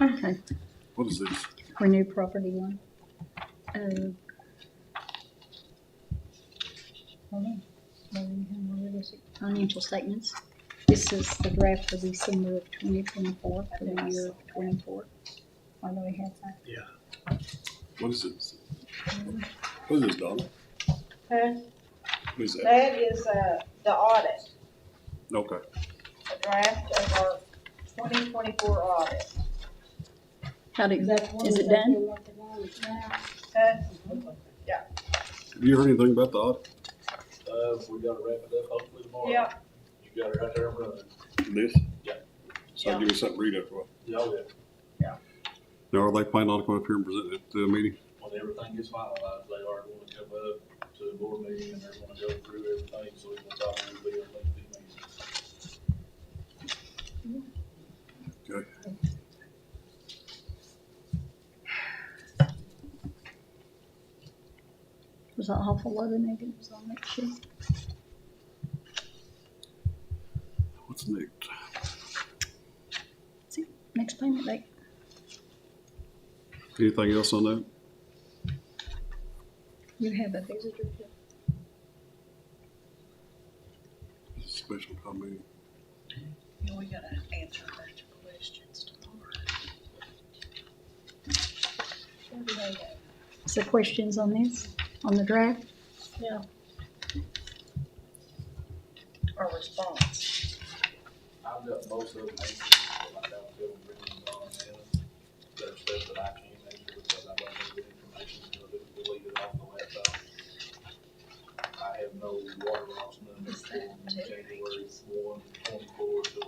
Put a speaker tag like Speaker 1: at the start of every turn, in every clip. Speaker 1: Okay,
Speaker 2: What is this?
Speaker 1: renew property one. Oh. Hold on. Where we have- where is it? Financial statements. This is the draft for December of twenty twenty-four, for the year of twenty-four. Why do we have that?
Speaker 2: What is this? What is this, Donna?
Speaker 3: Huh?
Speaker 2: What is that?
Speaker 3: That is, uh, the audit,
Speaker 2: Okay.
Speaker 3: the draft of our twenty twenty-four audit.
Speaker 1: How did, is it done?
Speaker 3: Huh?
Speaker 2: Have you heard anything about the audit?
Speaker 4: Uh, we gotta wrap it up hopefully tomorrow.
Speaker 3: Yeah,
Speaker 4: You got it right there in front of you.
Speaker 2: This?
Speaker 4: Yeah.
Speaker 2: So I'll give you something to read after a while.
Speaker 4: Yeah, yeah.
Speaker 2: Now, are they planning on coming up here and present at the meeting?
Speaker 4: When everything gets finalized, they are going to come up to the board meeting and they're gonna go through everything, so we can talk a little bit about the meeting.
Speaker 1: Was that awful lot of negatives on that sheet?
Speaker 2: What's next?
Speaker 1: Next payment date?
Speaker 2: Anything else on that?
Speaker 1: You have a visitor.
Speaker 2: It's a Special comment.
Speaker 5: We gotta answer that questions tomorrow.
Speaker 1: Is there questions on this, on the draft?
Speaker 5: Our response.
Speaker 4: I've got most of them answered, but I don't feel written on them. There's stuff that I can't answer because I don't have good information, so they deleted off the laptop. I have no water loss numbers
Speaker 5: Is that
Speaker 4: from
Speaker 5: two
Speaker 4: January one, twenty-four to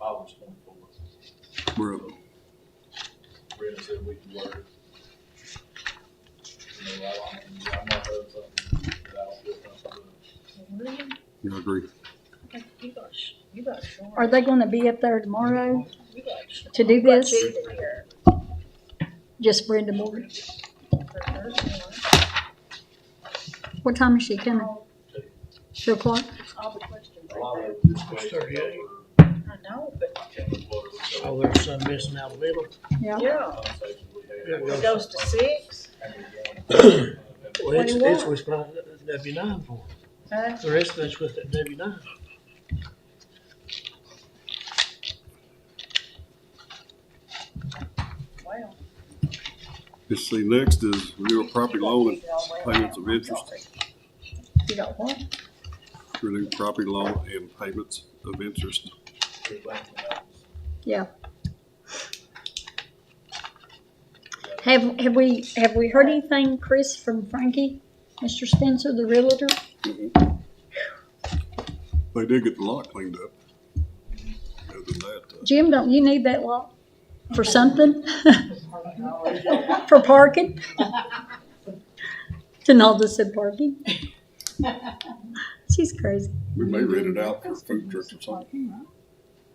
Speaker 4: August twenty-four.
Speaker 2: We're up.
Speaker 4: Brenda said we can work. You know, I, I'm, I'm not of something that I don't feel comfortable with.
Speaker 5: Really?
Speaker 2: You agree?
Speaker 5: You got, sh- you got short.
Speaker 1: Are they gonna be up there tomorrow
Speaker 5: You got short.
Speaker 1: to do this?
Speaker 5: She's there
Speaker 1: Just Brenda Morgan.
Speaker 5: for her.
Speaker 1: What time is she coming? Two o'clock?
Speaker 5: All the questions
Speaker 4: A lot
Speaker 5: right
Speaker 4: of this way.
Speaker 6: Thirty-eight.
Speaker 5: there. I know, but
Speaker 6: Oh, there's some missing out of the middle.
Speaker 1: Yeah.
Speaker 5: yeah, it goes to six,
Speaker 6: Well, it's, it's
Speaker 5: 21.
Speaker 6: with W nine for,
Speaker 5: huh?
Speaker 6: the rest of it's with that W nine.
Speaker 5: Well.
Speaker 2: Let's see, next is renewal property loan
Speaker 5: you gotta
Speaker 2: and
Speaker 5: read it
Speaker 2: payments of interest.
Speaker 1: You got what?
Speaker 2: Renew property loan and payments of interest.
Speaker 1: Yeah. Have, have we, have we heard anything, Chris, from Frankie, Mr. Spencer, the realtor?
Speaker 2: Mm-hmm. They did get the lot cleaned up. Other than that, uh,
Speaker 1: Jim, don't you need that lot for something?
Speaker 5: all out.
Speaker 1: For parking? Donalda said parking. She's crazy.
Speaker 2: we may rent it out for food trucks or something,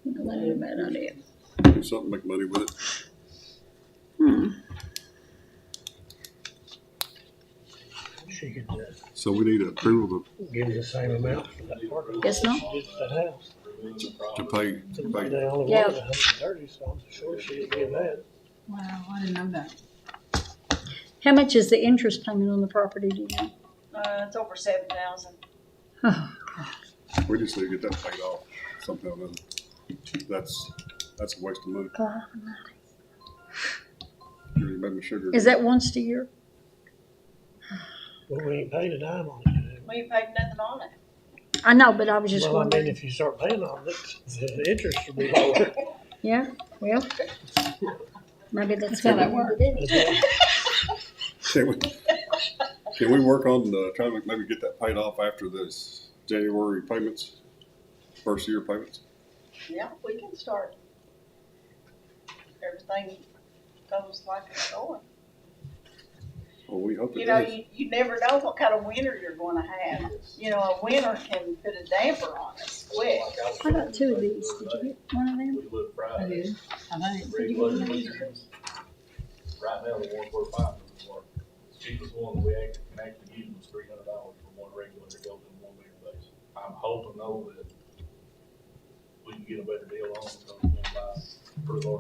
Speaker 1: That ain't a bad idea.
Speaker 2: do something, make money with it.
Speaker 1: Hmm.
Speaker 6: She could, uh,
Speaker 2: So we need approval
Speaker 6: give you the same amount for that park.
Speaker 1: Guess not.
Speaker 6: Just that house.
Speaker 2: to, to pay, to pay
Speaker 6: They only
Speaker 1: Yeah.
Speaker 6: wanted a hundred and thirty, so I'm sure she'd give that.
Speaker 5: Wow, I didn't know that.
Speaker 1: How much is the interest payment on the property, do you know?
Speaker 3: uh, it's over seven thousand.
Speaker 2: We just need to get that paid off somehow or another. That's, that's a waste of money.
Speaker 1: God.
Speaker 2: You already made me sugar.
Speaker 1: Is that once a year?
Speaker 6: Well, we ain't paid a dime on it.
Speaker 3: We ain't paid nothing on it.
Speaker 1: I know, but I was just
Speaker 6: Well, I mean,
Speaker 1: wondering.
Speaker 6: if you start paying on it, the interest will be lower.
Speaker 1: Yeah, well, maybe that's how that works.
Speaker 2: Can we, can we work on, uh, trying to maybe get that paid off after this January payments? First year payments?
Speaker 3: Yeah, we can start. Everything goes like it's going.
Speaker 2: Well, we hope it
Speaker 3: You know,
Speaker 2: does.
Speaker 3: you, you never know what kind of winter you're gonna have. You know, a winter can put a damper on us quick.
Speaker 1: I got two of these. Did you get one of them?
Speaker 4: We look Friday.
Speaker 5: I
Speaker 4: Right now, the one four five is the one, cheapest one we act- can actually use was three hundred dollars for one regular to go to one meter base. I'm hoping though that we can get a better deal on it, because we're gonna buy pretty large